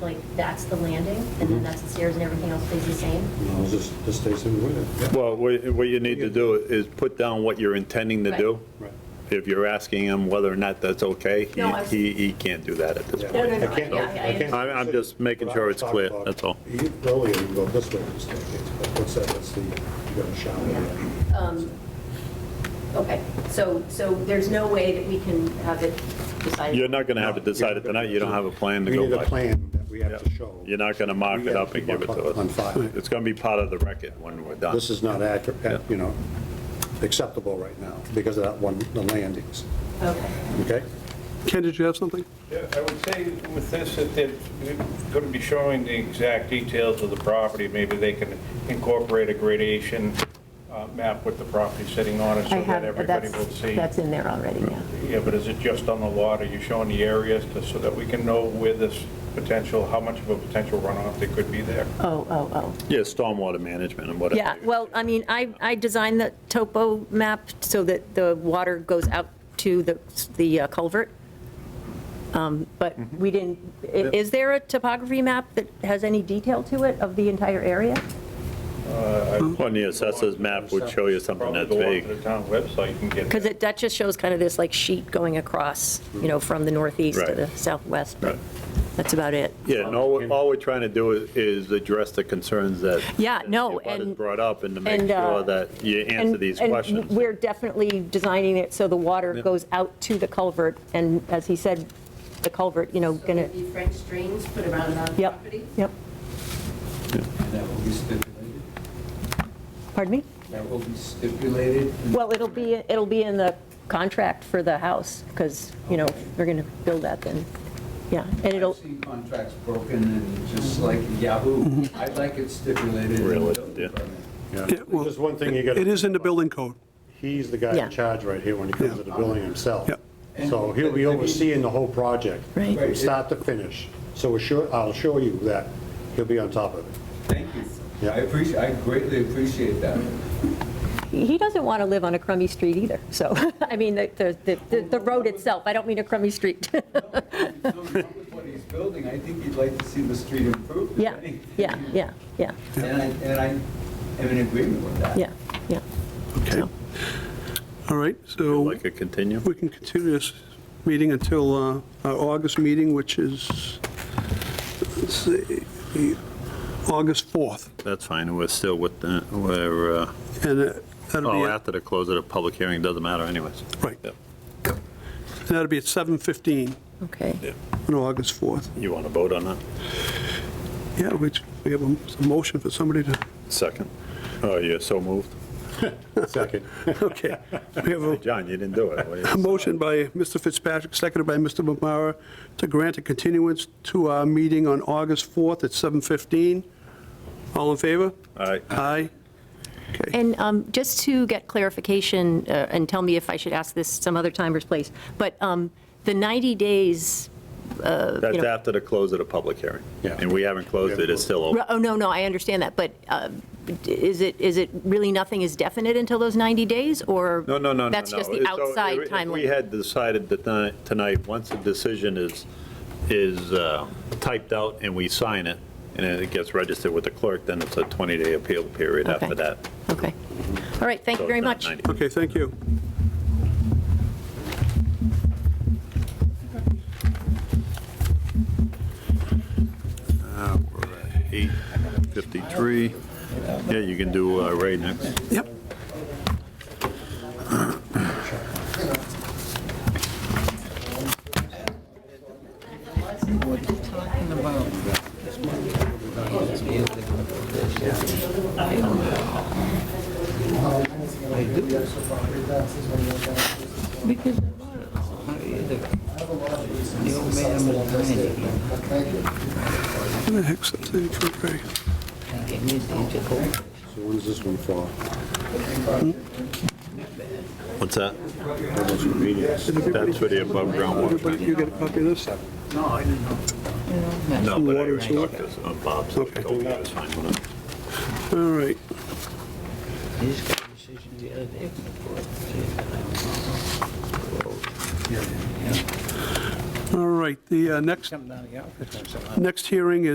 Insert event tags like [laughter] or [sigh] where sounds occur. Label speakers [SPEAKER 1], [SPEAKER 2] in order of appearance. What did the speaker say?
[SPEAKER 1] like, that's the landing, and
[SPEAKER 2] Mm-hmm.
[SPEAKER 1] then that's the stairs and everything else stays the same?
[SPEAKER 3] No, just, just stays in with it.
[SPEAKER 4] Well, what what you need to do is put down what you're intending to do.
[SPEAKER 3] Right.
[SPEAKER 4] If you're asking him whether or not that's okay, he-
[SPEAKER 5] No, I-
[SPEAKER 4] he, he can't do that at this
[SPEAKER 3] Yeah.
[SPEAKER 4] point.
[SPEAKER 5] no, no,
[SPEAKER 3] I can't-
[SPEAKER 5] yeah,
[SPEAKER 3] I
[SPEAKER 5] yeah, yeah.
[SPEAKER 3] can't-
[SPEAKER 4] I'm- I'm just making
[SPEAKER 3] But
[SPEAKER 4] sure
[SPEAKER 3] I'm
[SPEAKER 4] it's clear,
[SPEAKER 3] talking about-
[SPEAKER 4] that's all.
[SPEAKER 3] You- Earlier, you go this way with the staircase, but what's that, that's the, you got a shower.
[SPEAKER 5] Yeah. Um, Okay, so, so there's no way that we can have it decided?
[SPEAKER 4] You're not going to have it decided tonight, you don't have a plan to
[SPEAKER 3] We
[SPEAKER 4] go
[SPEAKER 3] need a
[SPEAKER 4] by.
[SPEAKER 3] plan that we have to
[SPEAKER 4] Yeah.
[SPEAKER 3] show.
[SPEAKER 4] You're not going to mark
[SPEAKER 3] We
[SPEAKER 4] it
[SPEAKER 3] have
[SPEAKER 4] up and give it to us.
[SPEAKER 3] On file.
[SPEAKER 4] It's going to be part of the record when we're done.
[SPEAKER 3] This is not accurate, uh, you know, acceptable right now because of that one, the landings,
[SPEAKER 5] Okay.
[SPEAKER 3] okay?
[SPEAKER 6] Ken, did you have something?
[SPEAKER 7] Yeah, I would say with this, that they're going to be showing the exact details of the property. Maybe they can incorporate a gradation uh, map with the property sitting on it
[SPEAKER 2] I
[SPEAKER 7] so that
[SPEAKER 2] have,
[SPEAKER 7] everybody
[SPEAKER 2] that's,
[SPEAKER 7] will see.
[SPEAKER 2] that's in there already, yeah.
[SPEAKER 7] Yeah, but is it just on the lot? Are you showing the areas to- so that we can know where this potential, how much of a potential runoff there could be there?
[SPEAKER 2] Oh, oh, oh.
[SPEAKER 4] Yeah, stormwater management and whatever.
[SPEAKER 2] Yeah, well, I mean, I, I designed the topo map so that the water goes out to the, the uh, culvert. Um, But
[SPEAKER 4] Mm-hmm.
[SPEAKER 2] we didn't, i- is there a topography map that has any detail to it of the entire area?
[SPEAKER 4] On the assessor's map would show you something that's
[SPEAKER 7] Uh, Probably
[SPEAKER 4] vague.
[SPEAKER 7] go onto the town website and get.
[SPEAKER 2] Because it, that just shows kind of this like sheet going across, you know, from the northeast to
[SPEAKER 4] Right.
[SPEAKER 2] the southwest, but
[SPEAKER 4] Right.
[SPEAKER 2] that's about it.
[SPEAKER 4] Yeah, and all, all we're trying to do is- is address the concerns that.
[SPEAKER 2] Yeah, no,
[SPEAKER 4] that your butters
[SPEAKER 2] and-
[SPEAKER 4] brought up and to make
[SPEAKER 2] and, uh,
[SPEAKER 4] sure that you answer
[SPEAKER 2] And-
[SPEAKER 4] these questions.
[SPEAKER 2] And we're definitely designing it so the water
[SPEAKER 4] Yeah.
[SPEAKER 2] goes out to the culvert, and as he said, the culvert, you know,
[SPEAKER 1] So
[SPEAKER 2] gonna,
[SPEAKER 1] maybe French drains put around our
[SPEAKER 2] yep,
[SPEAKER 1] property?
[SPEAKER 2] yep.
[SPEAKER 8] And that will be stipulated?
[SPEAKER 2] Pardon me?
[SPEAKER 8] That will be stipulated? in-
[SPEAKER 2] Well, it'll be, it'll be in the contract for the house, because, you know, if we're gonna build that then, yeah, and it'll,
[SPEAKER 8] I've seen contracts broken and just like Yahoo,
[SPEAKER 2] Mm-hmm.
[SPEAKER 8] I'd like it stipulated. in the
[SPEAKER 4] Really,
[SPEAKER 8] building
[SPEAKER 4] yeah.
[SPEAKER 8] permit.
[SPEAKER 6] Yeah, well,
[SPEAKER 3] There's one thing you gotta.
[SPEAKER 6] It is in the building code.
[SPEAKER 3] He's the guy
[SPEAKER 2] Yeah.
[SPEAKER 3] in charge right here when it comes to the building himself.
[SPEAKER 6] Yep.
[SPEAKER 3] So he'll be overseeing the whole project.
[SPEAKER 2] Right.
[SPEAKER 3] From start to finish. So we're sure, I'll show you that he'll be on top of it.
[SPEAKER 8] Thank you.
[SPEAKER 3] Yeah.
[SPEAKER 8] I appreciate, I greatly appreciate
[SPEAKER 2] [laughs]
[SPEAKER 8] that.
[SPEAKER 2] he doesn't want to live on a crummy street either, so, [laughs] I mean, the, the, the- the road itself, I don't mean a crummy street. [laughs]
[SPEAKER 8] If there's something wrong with what he's building, I think he'd like to see the street improved. if
[SPEAKER 2] Yeah,
[SPEAKER 8] anything.
[SPEAKER 2] yeah, yeah, yeah,
[SPEAKER 8] And I, and I am in agreement with that.
[SPEAKER 2] yeah, yeah.
[SPEAKER 6] Okay.
[SPEAKER 2] So-
[SPEAKER 6] All right, so
[SPEAKER 4] Like a continue?
[SPEAKER 6] we can continue this meeting until uh, our August meeting, which is, let's see, the August 4th.
[SPEAKER 4] That's fine, we're still with, the- we're, uh,
[SPEAKER 6] And uh, that'll be,
[SPEAKER 4] oh,
[SPEAKER 6] at-
[SPEAKER 4] after the close of the public hearing, doesn't matter anyways.
[SPEAKER 6] Right.
[SPEAKER 4] Yep.
[SPEAKER 6] and that'll be at 7:15
[SPEAKER 2] Okay.
[SPEAKER 6] on August 4th.
[SPEAKER 4] You want to vote on that?
[SPEAKER 6] Yeah, which, we have a a motion for somebody to, [laughs]
[SPEAKER 4] Second? Oh, you're so moved.
[SPEAKER 3] Second.
[SPEAKER 6] okay. We have a
[SPEAKER 4] John, you didn't
[SPEAKER 6] [laughs]
[SPEAKER 4] do it. What do
[SPEAKER 6] A
[SPEAKER 4] you-
[SPEAKER 6] motion by Mr. Fitzpatrick, seconded by Mr. Bombara, to grant a continuance to our meeting on August 4th at 7:15. All in favor?
[SPEAKER 4] All right.
[SPEAKER 6] Aye.
[SPEAKER 2] And um, just to get clarification, uh, and tell me if I should ask this some other time or place, but um, the 90 days,
[SPEAKER 4] That's
[SPEAKER 2] know-
[SPEAKER 4] after the close of the public hearing.
[SPEAKER 3] Yeah.
[SPEAKER 4] And we haven't closed it, it's still open.
[SPEAKER 2] oh, no, no, I understand that, but uh, is it, is it really nothing is definite until those 90 days, or?
[SPEAKER 4] No, no, no, no, no.
[SPEAKER 2] That's just the
[SPEAKER 4] So
[SPEAKER 2] outside
[SPEAKER 4] if-
[SPEAKER 2] timeline?
[SPEAKER 4] If we had decided that ni- tonight, once the decision is, is uh, typed out and we sign it, and then it gets registered with the clerk, then it's a 20-day appeal period
[SPEAKER 2] Okay.
[SPEAKER 4] after that.
[SPEAKER 2] Okay. All right, thank
[SPEAKER 4] So
[SPEAKER 2] you very
[SPEAKER 4] it's not
[SPEAKER 2] much.
[SPEAKER 4] 90.
[SPEAKER 6] Okay, thank you.
[SPEAKER 4] Uh, we're at 8:53. Yeah, you can do uh, Ray next.
[SPEAKER 6] Yep.
[SPEAKER 9] Because the water, the the old man was dying again.
[SPEAKER 6] Where the heck's that thing for Ray?
[SPEAKER 9] I gave me the Jacob.
[SPEAKER 3] So when does this one fall?
[SPEAKER 4] What's that?
[SPEAKER 3] Almost convenience.
[SPEAKER 4] That's for the above ground water.
[SPEAKER 6] Everybody, you get a copy of this?
[SPEAKER 4] No, but I
[SPEAKER 6] Water
[SPEAKER 4] already
[SPEAKER 6] sewer?
[SPEAKER 4] talked to uh, Bob, so he
[SPEAKER 6] Okay.
[SPEAKER 4] told me it was fine with it.
[SPEAKER 6] All right.
[SPEAKER 9] This conversation the other day. before, I said, I don't know.
[SPEAKER 8] All right, the uh, next,
[SPEAKER 6] Come down to the office once in a while.
[SPEAKER 8] next hearing is.